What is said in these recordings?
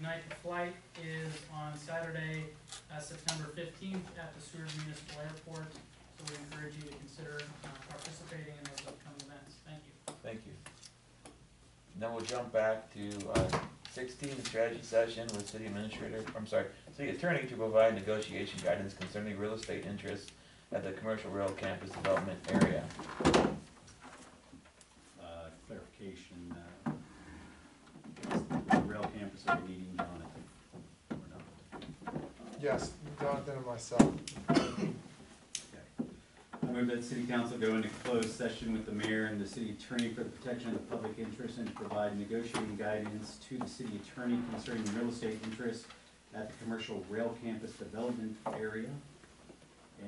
night the flight is on Saturday, uh, September fifteenth at the Seward Municipal Airport. So we encourage you to consider uh, participating in those upcoming events. Thank you. Thank you. Then we'll jump back to uh, sixteen, the strategy session with city administrator, I'm sorry, city attorney to provide negotiation guidance concerning real estate interests at the commercial rail campus development area. uh, clarification, uh, is the rail campus that we're needing, Jonathan, or not? Yes, Jonathan and myself. Okay. I move that city council go into closed session with the mayor and the city attorney for the protection of the public interest and to provide negotiating guidance to the city attorney concerning real estate interests at the commercial rail campus development area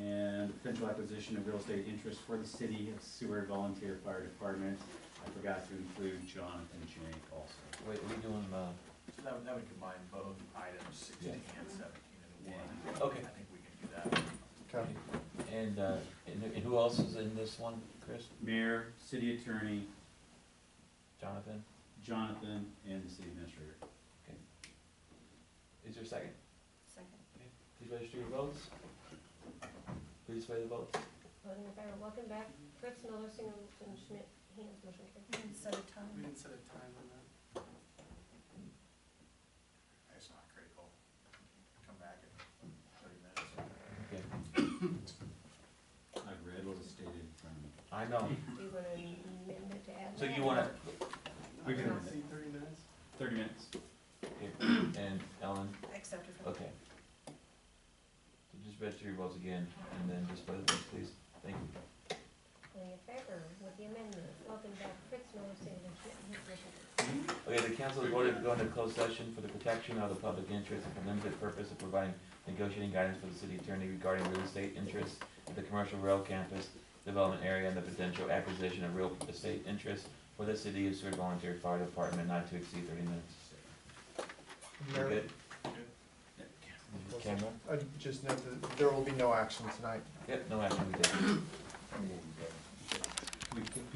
and the potential acquisition of real estate interests for the city of Seward Volunteer Fire Department. I forgot to include Jonathan Jank also. Wait, we doing, uh, So that would, that would combine both items sixteen and seventeen into one. Okay. I think we can do that. Okay. and, uh, and and who else is in this one, Chris, Mayor, city attorney, Jonathan? Jonathan, and the city administrator. Is there a second? Second. Please register your votes. Please sway the votes. Voting in favor, welcome back, Fritz Miller, Singleton Schmidt, Hannah, motion carried. We didn't set a We time. didn't set a time on that. It's not critical. Come back in thirty minutes. Okay, I've read what was stated in front of me. I know, Do you want to amend it to add that? so you wanna, We can- See thirty minutes? Thirty minutes. and Ellen, Accepted from. Okay. So Just register your votes again, and then just vote, please. Thank you. Voting in favor with the amendment, welcome back, Fritz Miller, Singleton Schmidt, Hannah, motion carried. Okay, the council has voted to go into closed session for the protection of the public interest and for limited purpose of providing negotiating guidance for the city attorney regarding real estate interests at the commercial rail campus development area and the potential acquisition of real estate interests for the city of Seward Volunteer Fire Department not to exceed thirty minutes. You Mayor, good? Camera? I just note that there will be no action tonight. Yep, no action, we did. We can-